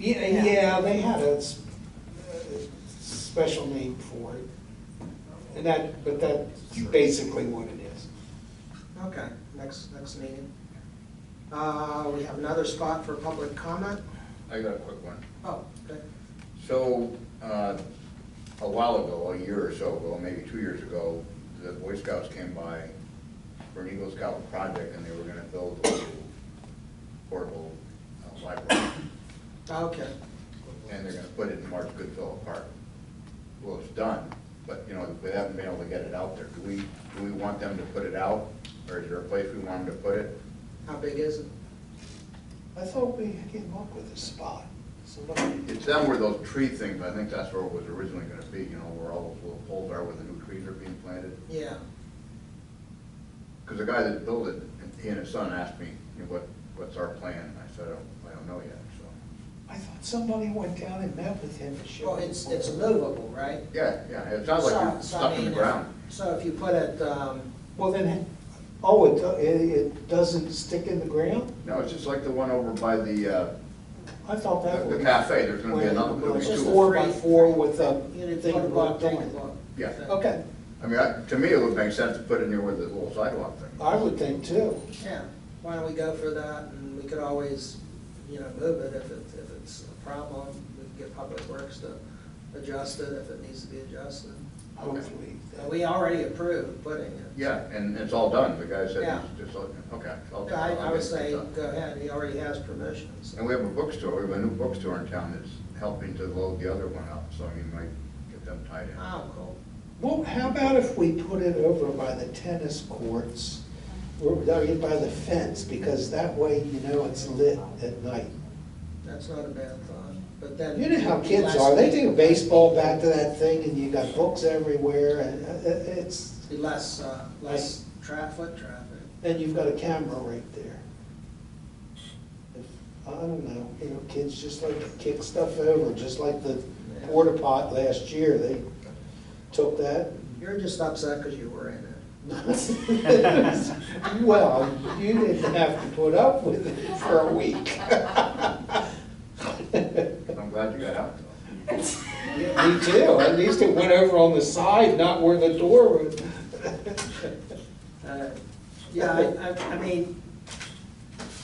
Yeah, Yeah. yeah, they had a s- a special name for it. And that, but that's basically what it is. Okay, next, next meeting. Uh, we have another spot for public comment. I got a quick one. Oh, okay. So, uh, a while ago, a year or so ago, maybe two years ago, the Boy Scouts came by for an Eagle Scout project, and they were gonna build a little portable uh, library, Okay, and they're gonna put it in Mark Goodfellow Park. Well, it's done, but, you know, we haven't been able to get it out there. Do we, do we want them to put it out, or is there a place we want them to put it? how big is it? I thought we came up with a spot. Somebody- It's down where those tree things, I think that's where it was originally gonna be, you know, where all those little poles are, where the new trees are being planted. Yeah, Because the guy that built it, he and his son asked me, you know, what, what's our plan? And I said, I don't, I don't know yet, so. I thought somebody went down and met with him and showed. well, it's, it's movable, right? Yeah, yeah, it sounds like So- you're so I stuck in the mean, ground. So if you put it, um, Well, then, oh, it, do- it, it doesn't stick in the ground? No, it's just like the one over by the, uh, I thought that The- the was. cafe, there's gonna be another- Well, there'll be Just two. four by four with a you know, thing put a blocked block, take a on. block. Yeah. Okay, I mean, I- to me, it would make sense to put it near where the little sidewalk Uh, thing. I would think too. Yeah, why don't we go for that, and we could always, you know, move it if it, if it's a problem, we can get Public Works to adjust it if it needs to be adjusted. Hopefully. Uh, We already approved putting it. Yeah, and it's all done, the guy Yeah. said, it's just, like- okay. I'll- Yeah, I, I'll I get would it say, done. go ahead, he already has permission, so. And we have a bookstore, we have a new bookstore in town that's helping to load the other one up, so you might get them tied in. Oh, cool. Well, how about if we put it over by the tennis courts, or I mean, by the fence, because that way, you know, it's lit at night. That's not a bad thought, but then. You know how kids are, they take a baseball bat to that thing, and you got books everywhere, and uh, uh, it's, Be less, uh, less traffic, traffic. and you've got a camera right there. If- I don't know, you know, kids just like to kick stuff over, just like the porta pot last year, they took that, You're just upset because you were in it. Well, you didn't have to put up with it for a week. I'm glad you got out though. Me too, at least it went over on the side, not where the door was. Uh, Yeah, I, I, I mean,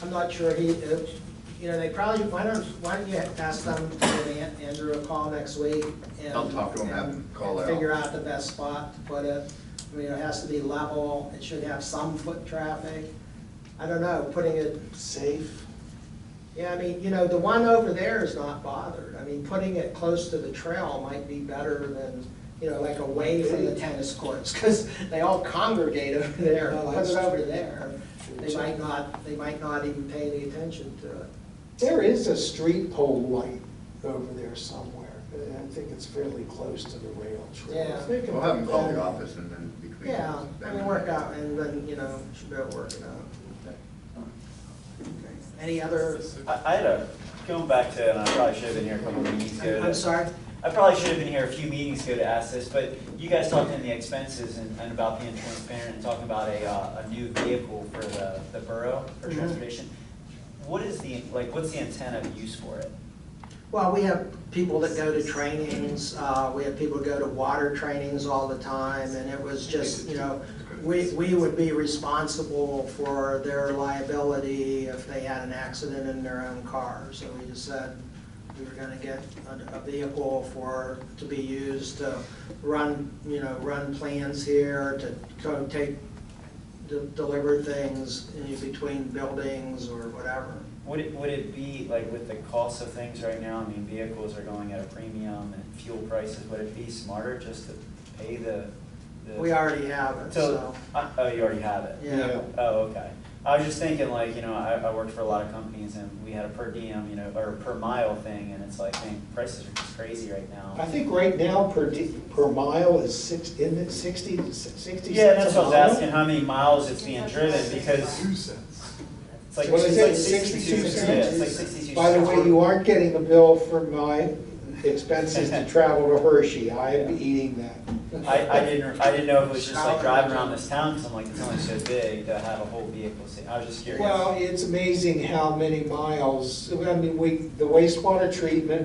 I'm not sure he, uh, you know, they probably, why don't, why don't you ask them, to give An- Andrew a call next week? and- I'll talk to him, have him and call it Figure out. out the best spot to put it. I mean, it has to be level, it should have some foot traffic. I don't know, putting it Safe, Yeah, I mean, you know, the one over there is not bothered. I mean, putting it close to the trail might be better than, you know, like away from the tennis courts, because they all congregate over there. No, Put that's it over there, true. they might not, they might not even pay any attention to it. there is a street pole light over there somewhere, and I think it's fairly close to the rail trail. Yeah. Think We'll have him call the about office and then between. Yeah, I mean, work out, and then, you know, should be able to work it out. Any other, I I had a, going back to, and I probably should have been here a couple meetings ago. I'm sorry? I probably should have been here a few meetings ago to ask this, but you guys talked in the expenses and, and about being transparent and talking about a, uh, a new vehicle for the, the borough for Mhm. transportation. What is the, like, what's the intent of use for it? Well, we have people that go to trainings, uh, we have people go to water trainings all the time, and it was just, you know, we, we would be responsible for their liability if they had an accident in their own car. So we just said we were gonna get a, a vehicle for, to be used to run, you know, run plans here, to go take, to deliver things in between buildings or whatever. Would it, would it be, like, with the cost of things right now, I mean, vehicles are going at a premium and fuel prices, would it be smarter just to pay the? the- We already have it, so, So, uh, oh, you already have it? yeah. Oh, okay. I was just thinking, like, you know, I, I worked for a lot of companies and we had a per diem, you know, or per mile thing, and it's like, man, prices are just crazy right I now. think right now per, di- per mile is six, isn't it sixty, sixty? Yeah, that's cents a what I was mile? asking, how many miles it's being driven, because it's like, What is it's like it, sixty-two 62 cents, yeah, it's like cents? sixty-two cents. By the way, you aren't getting a bill for my expenses to travel to Hershey, I am eating that. I, I didn't, I didn't know if it was just like driving around this town, because I'm like, it's only so big to have a whole vehicle, sa- I was just curious. Well, it's amazing how many miles, I mean, we, the wastewater treatment